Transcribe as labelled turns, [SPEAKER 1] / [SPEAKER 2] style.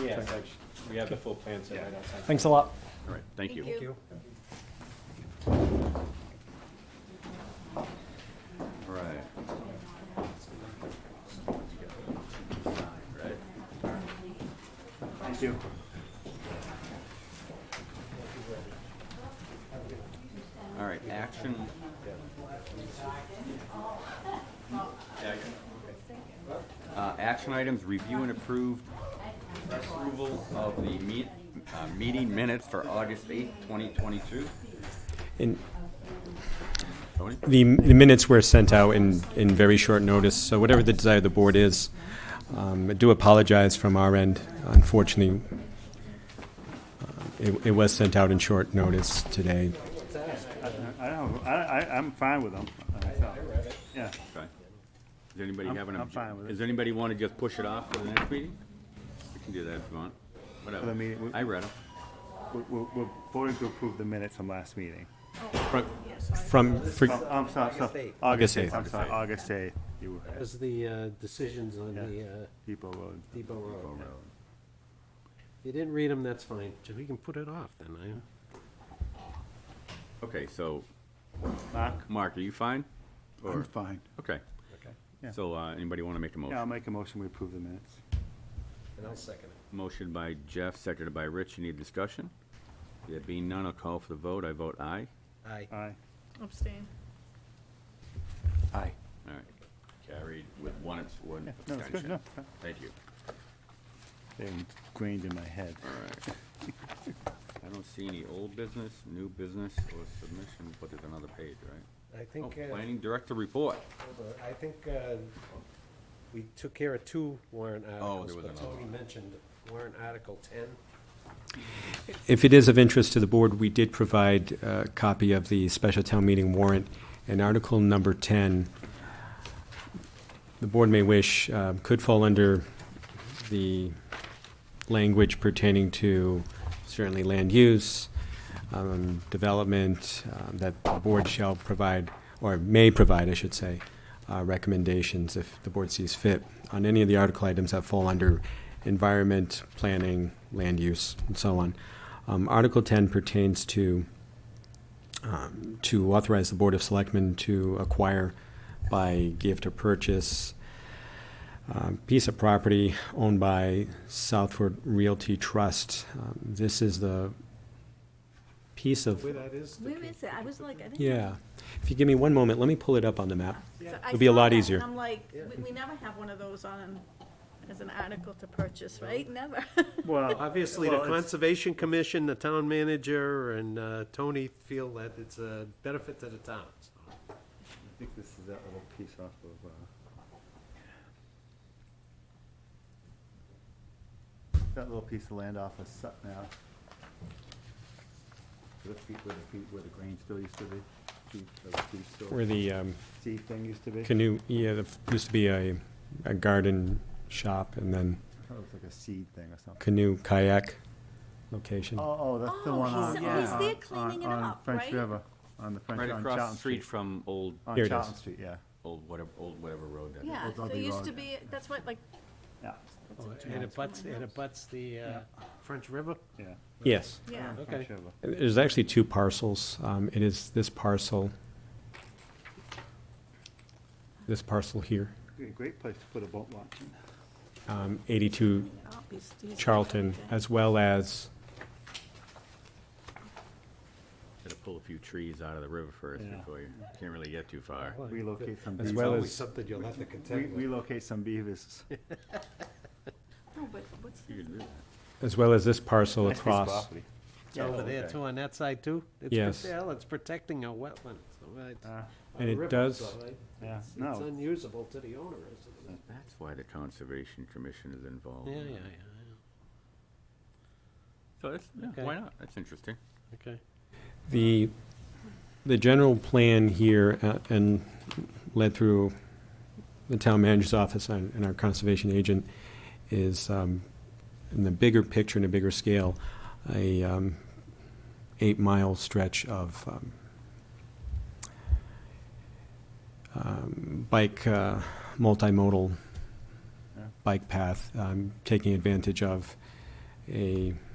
[SPEAKER 1] yeah,
[SPEAKER 2] Okay.
[SPEAKER 1] I- we have the full plan set right outside.
[SPEAKER 2] Thanks a lot.
[SPEAKER 3] All right, thank you.
[SPEAKER 4] Thank you.
[SPEAKER 3] All right. Right.
[SPEAKER 5] Thank you.
[SPEAKER 3] All right, action. Uh, action items, review and approve approval of the meet, uh, meeting minutes for August eighth, twenty twenty-two.
[SPEAKER 1] And
[SPEAKER 3] Tony?
[SPEAKER 1] the, the minutes were sent out in, in very short notice, so whatever the desire of the board is, um, I do apologize from our end. Unfortunately, uh, it, it was sent out in short notice today.
[SPEAKER 5] I don't, I, I, I'm fine with them. I thought- Yeah,
[SPEAKER 3] Okay. Does anybody
[SPEAKER 5] I'm-
[SPEAKER 3] have an?
[SPEAKER 5] I'm
[SPEAKER 3] obje-
[SPEAKER 5] fine with it.
[SPEAKER 3] Does anybody want to just push it off for the next meeting? We can do that if you want,
[SPEAKER 5] the
[SPEAKER 3] whatever.
[SPEAKER 5] meeting, we-
[SPEAKER 3] I read them.
[SPEAKER 5] we're, we're- we're voting to approve the minutes from last meeting.
[SPEAKER 1] From, from,
[SPEAKER 5] Oh,
[SPEAKER 1] for-
[SPEAKER 5] I'm sorry,
[SPEAKER 6] August
[SPEAKER 5] sorry.
[SPEAKER 6] eighth.
[SPEAKER 1] August eighth.
[SPEAKER 5] I'm sorry, August eighth. You were right.
[SPEAKER 6] As the uh, decisions on
[SPEAKER 5] Yeah.
[SPEAKER 6] the uh,
[SPEAKER 5] Depot Road.
[SPEAKER 6] Depot Road. If you didn't read them, that's fine. So We can put it off then. I-
[SPEAKER 3] Okay, so,
[SPEAKER 5] Mark?
[SPEAKER 3] Mark, are you fine?
[SPEAKER 7] I'm
[SPEAKER 3] Or-
[SPEAKER 7] fine.
[SPEAKER 3] Okay.
[SPEAKER 5] Yeah.
[SPEAKER 3] So, uh, anybody want to make a
[SPEAKER 5] Yeah, I'll
[SPEAKER 3] motion?
[SPEAKER 5] make a motion, we approve the minutes.
[SPEAKER 6] And I'll second it.
[SPEAKER 3] Motion by Jeff, seconded by Rich. Any discussion? There being none, I'll call for the vote. I vote aye.
[SPEAKER 6] Aye.
[SPEAKER 5] Aye.
[SPEAKER 8] Abstain.
[SPEAKER 3] Aye. All right. Carried with one, abs- one
[SPEAKER 5] Yeah, no, it's good,
[SPEAKER 3] abstention.
[SPEAKER 5] no.
[SPEAKER 3] Thank you.
[SPEAKER 5] They were ingrained in my head.
[SPEAKER 3] All right. I don't see any old business, new business, or submission, but there's another page, right?
[SPEAKER 6] I
[SPEAKER 3] Oh,
[SPEAKER 6] think, uh,
[SPEAKER 3] planning director report.
[SPEAKER 6] hold on. I think uh, we took care of two warrant
[SPEAKER 3] was
[SPEAKER 6] articles, but
[SPEAKER 3] another
[SPEAKER 6] Tony mentioned warrant article 10.
[SPEAKER 1] if it is of interest to the board, we did provide a copy of the special town meeting warrant and article number ten. The board may wish, um, could fall under the language pertaining to certainly land use, um, development, um, that the board shall provide, or may provide, I should say, uh, recommendations if the board sees fit on any of the article items that fall under environment, planning, land use, and so on. Um, Article ten pertains to, um, to authorize the Board of Selectmen to acquire by gift or purchase um, piece of property owned by Southford Realty Trust. Um, This is the piece of,
[SPEAKER 6] Where that is?
[SPEAKER 8] Where is it? I was like, I think.
[SPEAKER 1] yeah. If you give me one moment, let me pull it up on the map.
[SPEAKER 8] So I
[SPEAKER 1] It'll be a
[SPEAKER 8] saw
[SPEAKER 1] lot
[SPEAKER 8] that,
[SPEAKER 1] easier.
[SPEAKER 8] And I'm like,
[SPEAKER 6] Yeah.
[SPEAKER 8] we, we never have one of those on as an article to purchase, right? Never.
[SPEAKER 5] Well.
[SPEAKER 6] Obviously, the
[SPEAKER 5] uh, well, it's-
[SPEAKER 6] Conservation Commission, the town manager, and uh, Tony feel that it's a benefit to the town. so.
[SPEAKER 5] I think this is that little piece off of, uh, uh, that little piece of land off of Sutton Ave. Where the feet, where the feet, where the grain still used to be, feet, where the feet still-
[SPEAKER 1] Where the um,
[SPEAKER 5] sea thing used to be.
[SPEAKER 1] canoe, yeah, there used to be a, a garden shop and then
[SPEAKER 5] I thought it was like a seed thing or something.
[SPEAKER 1] canoe kayak location.
[SPEAKER 5] Oh, oh, that's the
[SPEAKER 8] Oh,
[SPEAKER 5] one
[SPEAKER 8] he's-
[SPEAKER 5] on,
[SPEAKER 8] he's
[SPEAKER 5] on-
[SPEAKER 8] there
[SPEAKER 5] on-
[SPEAKER 8] cleaning it
[SPEAKER 5] on
[SPEAKER 8] up,
[SPEAKER 5] French
[SPEAKER 8] right?
[SPEAKER 5] River, on the French,
[SPEAKER 3] Right
[SPEAKER 5] on
[SPEAKER 3] across
[SPEAKER 5] Charlton
[SPEAKER 3] the street
[SPEAKER 5] Street.
[SPEAKER 3] from old,
[SPEAKER 5] On
[SPEAKER 1] Here it
[SPEAKER 5] Charlton
[SPEAKER 1] is.
[SPEAKER 5] Street, yeah,
[SPEAKER 3] old whatever, old whatever road that is.
[SPEAKER 8] Yeah,
[SPEAKER 7] Well,
[SPEAKER 8] there
[SPEAKER 7] W
[SPEAKER 8] used
[SPEAKER 7] Road.
[SPEAKER 8] to be, that's what, like.
[SPEAKER 5] yeah,
[SPEAKER 8] that's what
[SPEAKER 6] And it
[SPEAKER 8] John's one
[SPEAKER 6] butts,
[SPEAKER 8] of
[SPEAKER 6] it
[SPEAKER 8] those.
[SPEAKER 6] abuts the uh, French River?
[SPEAKER 5] yeah.
[SPEAKER 1] Yes.
[SPEAKER 8] Yeah.
[SPEAKER 5] on
[SPEAKER 6] Okay.
[SPEAKER 5] French River.
[SPEAKER 1] There's actually two parcels. Um, It is this parcel, this parcel here,
[SPEAKER 5] Be a Great place to put a boat launch in.
[SPEAKER 1] um, 82
[SPEAKER 8] Oh, he's- he's-
[SPEAKER 1] Charlton,
[SPEAKER 8] okay.
[SPEAKER 1] as well as,
[SPEAKER 3] Gotta pull a few trees out of the river first
[SPEAKER 5] Yeah.
[SPEAKER 3] before you, can't really get too far.
[SPEAKER 5] Relocate some
[SPEAKER 1] As
[SPEAKER 6] It's
[SPEAKER 5] beavers.
[SPEAKER 1] well
[SPEAKER 6] always
[SPEAKER 1] as-
[SPEAKER 6] something you'll have to
[SPEAKER 5] Re-
[SPEAKER 6] contend with.
[SPEAKER 5] Relocate some beavers.
[SPEAKER 8] No, but what's,
[SPEAKER 3] You could do that.
[SPEAKER 1] as well as this parcel
[SPEAKER 5] Nice piece of
[SPEAKER 1] across.
[SPEAKER 5] property.
[SPEAKER 6] It's over there
[SPEAKER 3] okay.
[SPEAKER 6] too, on that side too? It's
[SPEAKER 1] Yes.
[SPEAKER 6] for sale, it's protecting our wetlands, all right.
[SPEAKER 5] Uh,
[SPEAKER 1] And
[SPEAKER 6] Our
[SPEAKER 1] it
[SPEAKER 6] rivers,
[SPEAKER 1] does-
[SPEAKER 6] all right.
[SPEAKER 5] Yeah,
[SPEAKER 6] It's-
[SPEAKER 5] no,
[SPEAKER 6] It's
[SPEAKER 5] it's-
[SPEAKER 6] unusable to the owner, isn't it?
[SPEAKER 3] That's why the Conservation Commission is involved.
[SPEAKER 6] Yeah,
[SPEAKER 3] in
[SPEAKER 6] yeah,
[SPEAKER 3] that.
[SPEAKER 6] yeah,
[SPEAKER 3] So that's, yeah,
[SPEAKER 6] Okay.
[SPEAKER 3] why not? That's interesting.
[SPEAKER 6] okay.
[SPEAKER 1] The, the general plan here, uh, and led through the town manager's office and and our conservation agent, is um, in the bigger picture, in a bigger scale, a um, eight-mile stretch of um, um, bike, uh, multimodal
[SPEAKER 5] Yeah.
[SPEAKER 1] bike path, um, taking advantage of a